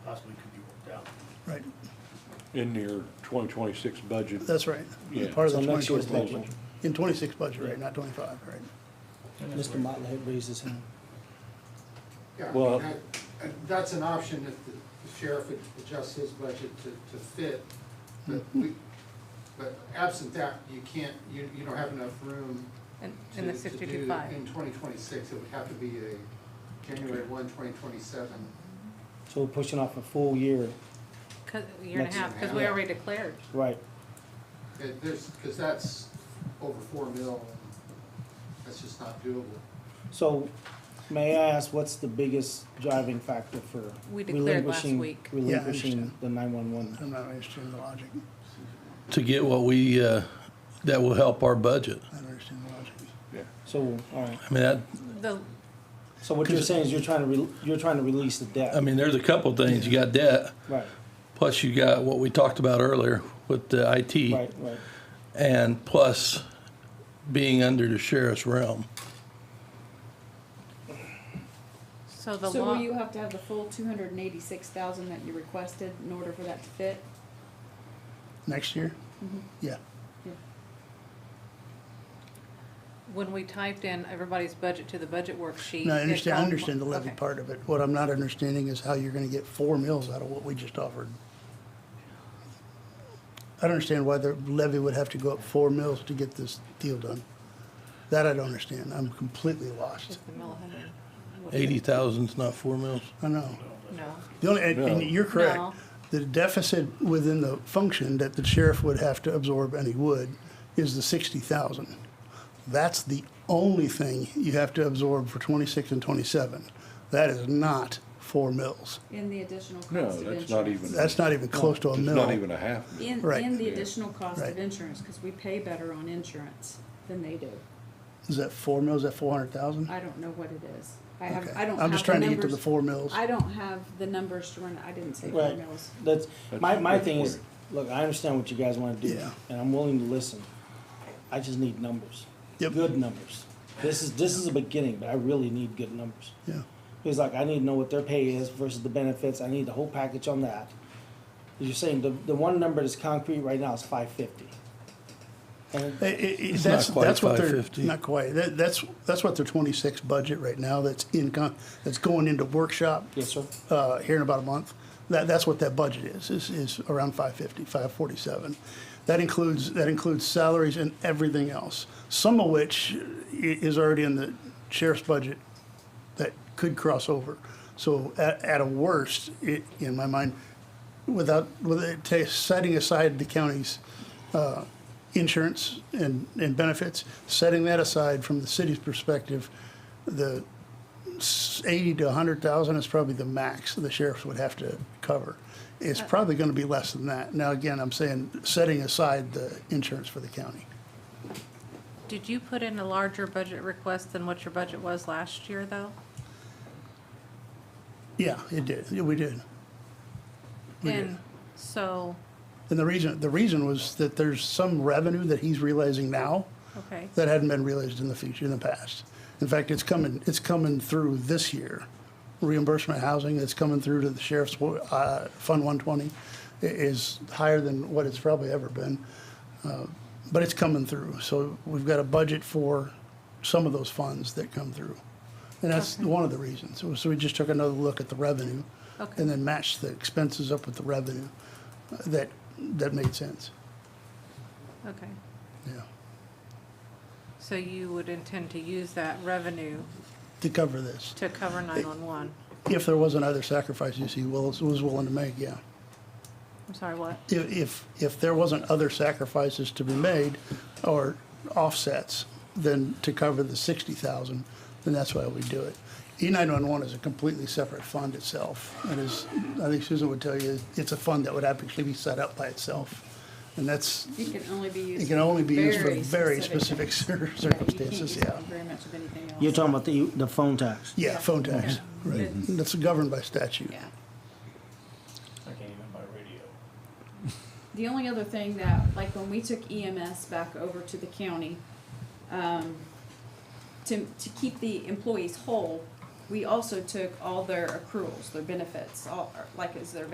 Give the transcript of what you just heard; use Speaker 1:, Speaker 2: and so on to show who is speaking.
Speaker 1: in your twenty twenty-six budget.
Speaker 2: That's right.
Speaker 1: Yeah.
Speaker 2: Part of the
Speaker 3: So next year's
Speaker 2: 2026
Speaker 1: proposal.
Speaker 2: budget. In twenty-six budget, right, not twenty-five, right?
Speaker 3: Mr. Motley had raised his hand.
Speaker 4: Yeah, I
Speaker 1: Well-
Speaker 4: mean, that- that- that's an option if the the sheriff ad- adjusts his budget to, to fit. But we, but absent that, you can't, you, you don't have enough room
Speaker 5: In,
Speaker 4: to,
Speaker 5: in the
Speaker 4: to do,
Speaker 5: sixty-two five.
Speaker 2: Mm.
Speaker 4: in twenty twenty-six, it would have to be a January one, twenty twenty-seven.
Speaker 3: So we're pushing off a full year,
Speaker 5: Cause, a year and a
Speaker 3: Next
Speaker 5: half, cause we
Speaker 4: year.
Speaker 5: already declared.
Speaker 3: right?
Speaker 4: That, there's, because that's over four mil, and that's just not doable.
Speaker 3: So may I ask, what's the biggest driving factor for
Speaker 5: We declared last
Speaker 3: relinquishing-
Speaker 5: week. Yeah, I
Speaker 3: Relinquishing
Speaker 2: understand.
Speaker 3: the nine-one-one?
Speaker 2: I'm not understanding the logic.
Speaker 6: to get what we, uh, that will help our budget.
Speaker 2: I don't understand the logic.
Speaker 1: Yeah.
Speaker 3: So, all right,
Speaker 6: I mean, that,
Speaker 5: The,
Speaker 3: so what you're saying is you're trying to, re- you're trying to release the debt,
Speaker 6: I
Speaker 2: Um,
Speaker 6: mean, there's a couple things. You got debt,
Speaker 3: right,
Speaker 6: plus you got what we talked about earlier with the
Speaker 3: right,
Speaker 6: IT,
Speaker 3: right.
Speaker 6: and plus being under the sheriff's realm.
Speaker 5: so the
Speaker 7: So will
Speaker 5: law,
Speaker 7: you have to have the full two hundred and eighty-six thousand that you requested in order for that to fit?
Speaker 2: Next year? Yeah,
Speaker 5: when we typed in everybody's budget to the budget worksheet.
Speaker 2: no, I
Speaker 5: it
Speaker 2: understand, I
Speaker 5: called-
Speaker 2: understand the levy
Speaker 5: okay.
Speaker 2: part of it. What I'm not understanding is how you're gonna get four mills out of what we just offered. I don't understand why the levy would have to go up four mills to get this deal done. That I don't understand, I'm completely lost.
Speaker 5: Just the mill hundred.
Speaker 6: Eighty thousand's not four mils.
Speaker 2: I know.
Speaker 5: No,
Speaker 2: The only, and, and
Speaker 1: No.
Speaker 2: you're correct.
Speaker 5: No.
Speaker 2: The deficit within the function that the sheriff would have to absorb, and he would, is the sixty thousand. That's the only thing you have to absorb for twenty-six and twenty-seven. That is not four mills.
Speaker 7: In the additional cost
Speaker 1: No,
Speaker 7: of
Speaker 1: that's
Speaker 7: insurance?
Speaker 1: not even.
Speaker 2: That's not even close to a
Speaker 1: It's
Speaker 2: mill.
Speaker 1: not even a half mil.
Speaker 7: In,
Speaker 2: Right.
Speaker 7: in the additional cost
Speaker 2: Right.
Speaker 7: of insurance, because we pay better on insurance than they do.
Speaker 2: Is that four mills? Is that four hundred thousand?
Speaker 7: I don't know what it is. I have,
Speaker 2: Okay.
Speaker 7: I don't have the numbers.
Speaker 2: I'm just trying to get to the four mills.
Speaker 7: I don't have the numbers to run, I didn't say four
Speaker 3: Right,
Speaker 7: mills.
Speaker 3: that's, my,
Speaker 1: That's
Speaker 3: my
Speaker 1: great
Speaker 3: thing is,
Speaker 1: point.
Speaker 3: look, I understand what you guys wanna do,
Speaker 2: Yeah.
Speaker 3: and I'm willing to listen. I just need numbers.
Speaker 2: Yep.
Speaker 3: Good numbers. This is, this is a beginning, but I really need good numbers.
Speaker 2: Yeah.
Speaker 3: Because like, I need to know what their pay is versus the benefits, I need the whole package on that. You're saying the, the one number that's concrete right now is five fifty. And
Speaker 2: It- it- it-
Speaker 6: It's
Speaker 2: that's,
Speaker 6: not quite
Speaker 2: that's what they're,
Speaker 6: 550.
Speaker 2: not quite, that, that's, that's what their twenty-six budget right now, that's in, con- that's going into workshop.
Speaker 3: Yes, sir.
Speaker 2: Uh, here in about a month, that, that's what that budget is, is, is around five fifty, five forty-seven. That includes, that includes salaries and everything else, some of which i- is already in the sheriff's budget that could cross over. So at, at a worst, it, in my mind, without, with it, ta- setting aside the county's, uh, insurance and, and benefits, setting that aside from the city's perspective, the s- eighty to a hundred thousand is probably the max the sheriffs would have to cover. It's probably gonna be less than that. Now, again, I'm saying, setting aside the insurance for the county.
Speaker 5: did you put in a larger budget request than what your budget was last year though?
Speaker 2: Yeah, it did, Yeah, we did. We did.
Speaker 5: And so,
Speaker 2: And the reason, the reason was that there's some revenue that he's realizing now
Speaker 5: okay,
Speaker 2: that hadn't been realized in the future, in the past. In fact, it's coming, it's coming through this year. Reimbursement housing that's coming through to the sheriff's, uh, Fund one twenty is higher than what it's probably ever been. Uh, But it's coming through, so we've got a budget for some of those funds that come through. And that's one of the reasons. So- So we just took another look at the revenue
Speaker 5: Okay.
Speaker 2: and then matched the expenses up with the revenue. Uh, That, that made sense,
Speaker 5: okay.
Speaker 2: yeah,
Speaker 5: So you would intend to use that revenue
Speaker 2: to cover this.
Speaker 5: to cover nine-one-one?
Speaker 2: If there was another sacrifice you see Willis was willing to make, yeah.
Speaker 5: I'm sorry, what?
Speaker 2: If, if, if there wasn't other sacrifices to be made or offsets, then to cover the sixty thousand, then that's why we do it. E nine one one is a completely separate fund itself. It is, I think Susan would tell you, it's a fund that would actually be set up by itself. And that's,
Speaker 7: It can only be used.
Speaker 2: it can only be used for
Speaker 7: very
Speaker 2: very
Speaker 7: specific-
Speaker 2: specific cir-
Speaker 7: Right, you can't
Speaker 2: circumstances,
Speaker 7: use it
Speaker 2: yeah.
Speaker 7: for Very much of anything else.
Speaker 3: You're talking about the, the phone tax.
Speaker 2: Yeah, phone tax, right. That's governed by statute.
Speaker 7: Yeah.
Speaker 8: I can't even buy radio.
Speaker 7: The only other thing that, like when we took EMS back over to the county, um, to, to keep the employees whole, we also took all their accruals, their benefits, all, like is their